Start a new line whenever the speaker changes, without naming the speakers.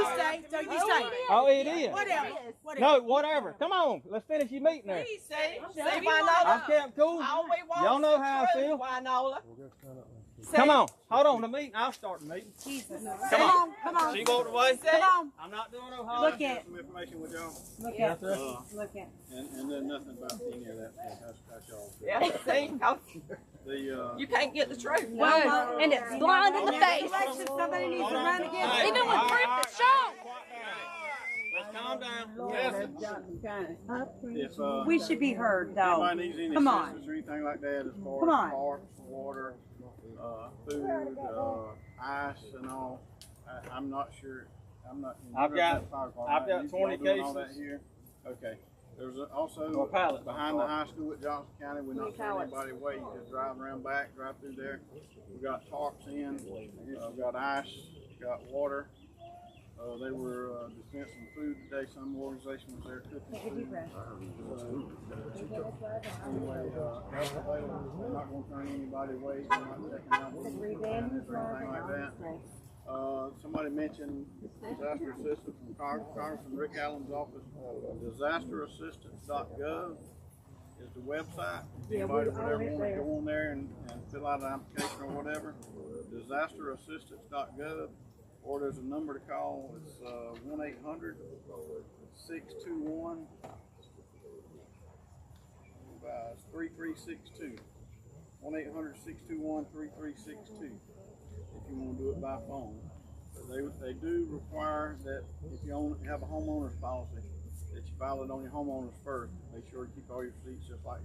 say, so you say.
Oh, it is.
Whatever, whatever.
No, whatever. Come on, let's finish your meeting there.
Please say, say
Say
I'm
Winola.
kept cool.
Always wants
Y'all know how I
the
feel.
truth, Winola. Say-
Come on, hold on. The meeting. I'll start the meeting.
Come on, come on,
She walked away.
come on.
I'm not doing no
hollering. Look at-
Some information with y'all, Uh,
Look
Yes,
at,
sir.
look at.
and, and then nothing about any of that, that's, that's y'all.
Yeah, see, oh,
The, uh,
you can't get the truth.
Whoa, and it's blind in the face.
Election, somebody needs to run again.
Hey,
Even with
all
Griffin
right,
Shaw.
all right. Let's calm down. Listen,
Listen,
if, uh,
We should be heard though.
anybody needs any
Come on.
assistance or anything like that, as
Come
far
on.
as parks, water, uh, food, uh, ice and all, I, I'm not sure, I'm not. in
I've got-
fire department.
I've got
You
20
y'all doing all
cases.
that here? Okay, there's
Or
also,
pallet.
behind the high school at Johnson County, we're not turning anybody away, you just drive around back, drive through there. We got tarps in, uh, we got ice, we got water. Uh, they were, uh, dispensing food today, some organization was there cooking food. Uh, Anyway, uh, they're not gonna turn anybody away, they're not checking out what people are doing or anything like that. Uh, somebody mentioned disaster assistance from Cong- Congressman Rick Allen's office, disasterassistance.gov is the website. Anybody would ever wanna go on there and, and fill out an application or whatever, disasterassistance.gov. Or there's a number to call, it's, uh, one eight hundred six two one uh, three three six two. One eight hundred six two one three three six two. If you wanna do it by phone. But they, they do require that if you own, have a homeowner's policy, that you file it on your homeowners first. Make sure you keep all your receipts just like